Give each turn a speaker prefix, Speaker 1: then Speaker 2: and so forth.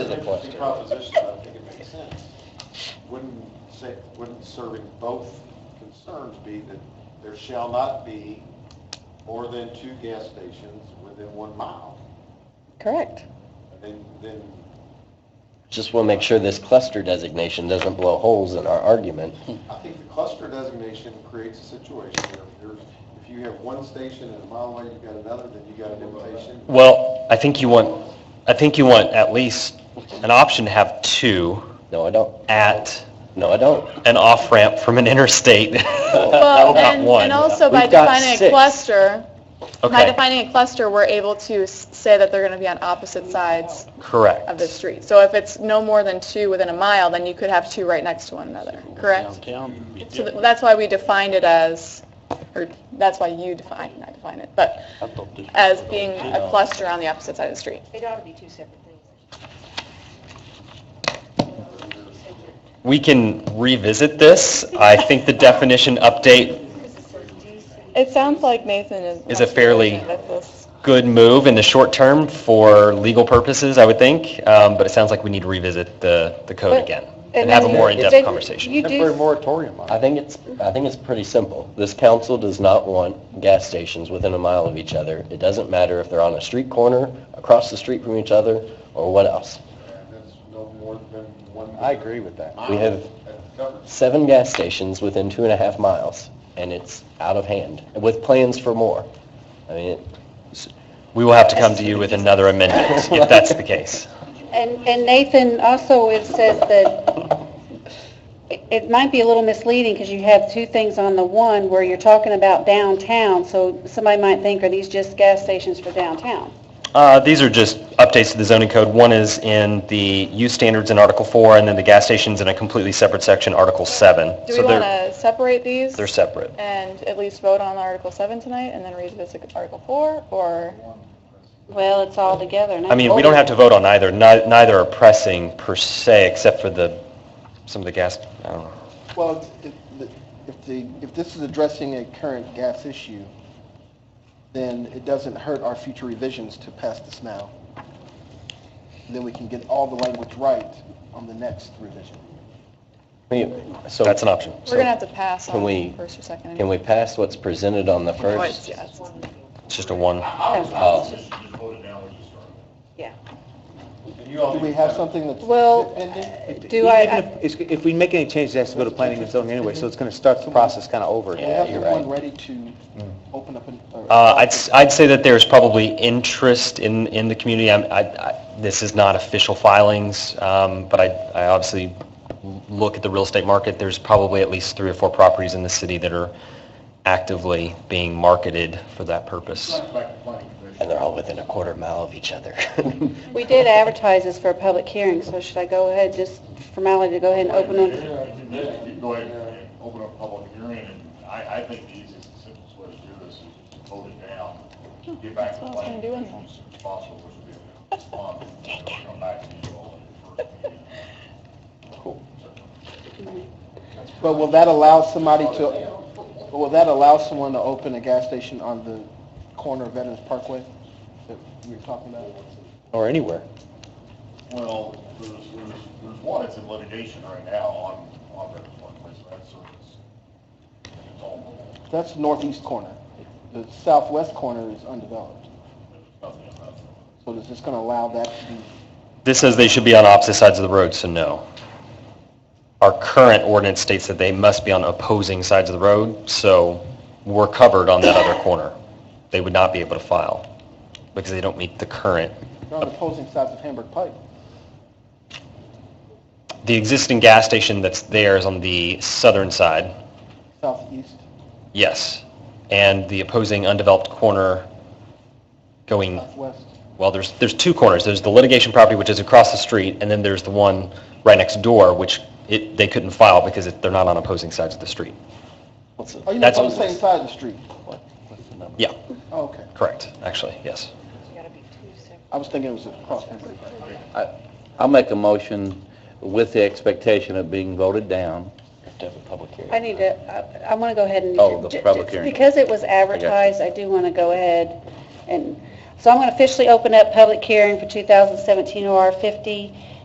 Speaker 1: the
Speaker 2: interesting
Speaker 1: question.
Speaker 2: Proposition, I think it makes sense. Wouldn't say, wouldn't serving both concerns be that there shall not be more than two gas stations within one mile?
Speaker 3: Correct.
Speaker 2: And then, then,
Speaker 1: Just want to make sure this cluster designation doesn't blow holes in our argument.
Speaker 2: I think the cluster designation creates a situation where if you're, if you have one station and a mile away, you've got another, then you got a limitation.
Speaker 4: Well, I think you want, I think you want at least an option to have two
Speaker 1: No, I don't.
Speaker 4: at
Speaker 1: No, I don't.
Speaker 4: an off-ramp from an interstate.
Speaker 3: Well,
Speaker 4: Uh, Not
Speaker 3: and,
Speaker 4: one.
Speaker 3: and also by
Speaker 1: We've got
Speaker 3: defining a
Speaker 1: six.
Speaker 3: cluster, by
Speaker 4: Okay,
Speaker 3: defining a cluster, we're able to s- say that they're going to be on opposite sides of the
Speaker 4: correct.
Speaker 3: street. So if it's no more than two within a mile, then you could have two right next to one another, correct?
Speaker 5: Downtown.
Speaker 3: So th- that's why we defined it as, or that's why you define, not define it, but as being a cluster on the opposite side of the street.
Speaker 6: It ought to be two separate things.
Speaker 4: We can revisit this. I think the definition update,
Speaker 3: It sounds like Nathan is.
Speaker 4: Is it fairly-
Speaker 3: With this.
Speaker 4: good move in the short term for legal purposes, I would think, um, but it sounds like we need to revisit the, the code
Speaker 7: But-
Speaker 4: again and have a more in-depth conversation.
Speaker 7: You do,
Speaker 2: moratorium
Speaker 1: I think it's, I think it's pretty simple. This council does not want gas stations within a mile of each other. It doesn't matter if they're on a street corner, across the street from each other, or what else.
Speaker 2: That's no more than one.
Speaker 1: with that.
Speaker 2: mile.
Speaker 1: We have
Speaker 2: That's covered.
Speaker 1: seven gas stations within two and a half miles, and it's out of hand, with plans for more. I mean, it-
Speaker 4: We will have to come to you with another amendment if that's the case.
Speaker 7: and and Nathan, also, it says that, it- it might be a little misleading, because you have two things on the one where you're talking about downtown, so somebody might think, are these just gas stations for downtown?
Speaker 4: Uh, These are just updates to the zoning code. One is in the use standards in Article 4, and then the gas stations in a completely separate section, Article 7.
Speaker 3: Do we
Speaker 4: So
Speaker 3: want
Speaker 4: they're
Speaker 3: to separate these?
Speaker 4: They're separate.
Speaker 3: and at least vote on Article 7 tonight and then revisit Article 4, or?
Speaker 7: Well, it's all together. and
Speaker 4: I mean, we don't have to vote on either. Nei- Neither are pressing per se, except for the, some of the gas, I don't know.
Speaker 8: Well, if, if if the, if this is addressing a current gas issue, then it doesn't hurt our future revisions to pass this now. Then we can get all the language right on the next revision.
Speaker 1: I mean, so...
Speaker 4: That's an option.
Speaker 3: We're going to have to pass
Speaker 1: Can
Speaker 3: on
Speaker 1: we-
Speaker 3: the first or second.
Speaker 1: Can we pass what's presented on the
Speaker 3: No, it's-
Speaker 1: first?
Speaker 3: yeah, it's-
Speaker 4: It's just a one.
Speaker 1: Oh,
Speaker 6: Yeah.
Speaker 8: Do we have something that's
Speaker 7: Well,
Speaker 1: uh,
Speaker 8: pending?
Speaker 7: Do I-
Speaker 9: Even if- it's- If we make any changes, it has to go to planning and zoning anyway, so it's going to start the process kind of over.
Speaker 8: Do
Speaker 9: again.
Speaker 8: we have
Speaker 1: Yeah,
Speaker 8: the
Speaker 1: you're
Speaker 8: one
Speaker 1: right.
Speaker 8: ready to open up? an- or-
Speaker 4: Uh, I'd, s- I'd say that there's probably interest in, in the community. I'm, I, I, this is not official filings, um, but I, I obviously l- look at the real estate market. There's probably at least three or four properties in the city that are actively being marketed for that purpose.
Speaker 1: And they're all within a quarter mile of each other.
Speaker 7: We did advertise this for a public hearing, so should I go ahead, just formality, to go ahead and open it?
Speaker 10: You did, you go ahead and open up public hearing, and I, I think the easiest and simplest way to do this is to vote it down. Get back
Speaker 3: That's
Speaker 10: to
Speaker 3: what I was gonna
Speaker 10: planning
Speaker 3: do anyway.
Speaker 10: commission as soon as possible, which would be a response, and then come back to you all in the first meeting.
Speaker 8: But will that allow somebody to, will that allow someone to open a gas station on the corner of Veterans Parkway that we were talking about?
Speaker 9: Or anywhere.
Speaker 10: Well, there's, there's, there's one that's in litigation right now on, on Veterans Parkway, so that's service. And it's all,
Speaker 8: That's northeast corner. The southwest corner is undeveloped.
Speaker 10: there's nothing about it.
Speaker 8: So is this going to allow that to be,
Speaker 4: This says they should be on opposite sides of the road, so no. Our current ordinance states that they must be on opposing sides of the road, so we're covered on that other corner. They would not be able to file because they don't meet the current
Speaker 8: they're on opposing sides of Hamburg Pike?
Speaker 4: The existing gas station that's there is on the southern side,
Speaker 8: Southeast?
Speaker 4: yes. And the opposing undeveloped corner going,
Speaker 8: Southwest?
Speaker 4: well, there's, there's two corners. There's the litigation property, which is across the street, and then there's the one right next door, which it, they couldn't file because it- they're not on opposing sides of the street.
Speaker 8: Oh, you mean
Speaker 4: That's-
Speaker 8: on the same side of the street?
Speaker 4: Yeah,
Speaker 8: Oh, okay.
Speaker 4: correct, actually, yes.
Speaker 6: It's got to be two separate.
Speaker 8: I was thinking it was across Hamburg Pike.
Speaker 5: I'll make a motion with the expectation of being voted down.
Speaker 1: To have a public hearing.
Speaker 7: I need to, I want to go ahead and...
Speaker 5: Oh, the public hearing.
Speaker 7: Because it was advertised, I do want to go ahead and, so I'm going to officially open up public hearing for 2017 OR 50.